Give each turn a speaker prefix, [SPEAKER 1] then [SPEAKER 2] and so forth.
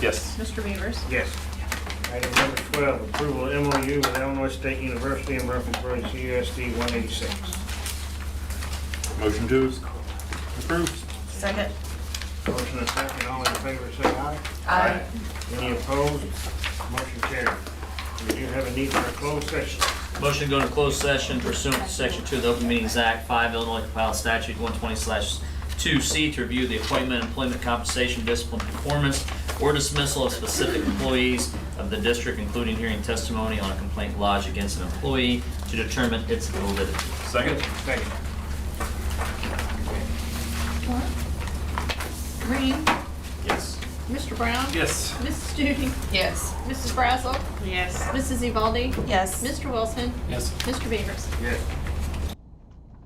[SPEAKER 1] Yes.
[SPEAKER 2] Mr. Beavers?
[SPEAKER 3] Yes. Item number 12, approval of MOU with Illinois State University in reference to CUSD 186.
[SPEAKER 1] Motion to approve.
[SPEAKER 2] Second.
[SPEAKER 3] Motion and second, all in favor, say aye.
[SPEAKER 2] Aye.
[SPEAKER 3] Any opposed? Motion carried. We do have a need for a closed session.
[SPEAKER 4] Motion to go into closed session pursuant to Section 2 of the Open Meetings Act, 5 Illinois compiled statute 120/2C to review the appointment, employment compensation, discipline, performance, or dismissal of specific employees of the district, including hearing testimony on a complaint lodged against an employee to determine its validity.
[SPEAKER 1] Second?
[SPEAKER 3] Second.
[SPEAKER 2] Green?
[SPEAKER 1] Yes.
[SPEAKER 2] Mr. Brown?
[SPEAKER 1] Yes.
[SPEAKER 2] Mrs. Judy? Yes. Mrs. Brazel? Yes. Mrs. Evaldi? Yes. Mr. Wilson?
[SPEAKER 1] Yes.
[SPEAKER 2] Mr. Beavers?
[SPEAKER 3] Yes.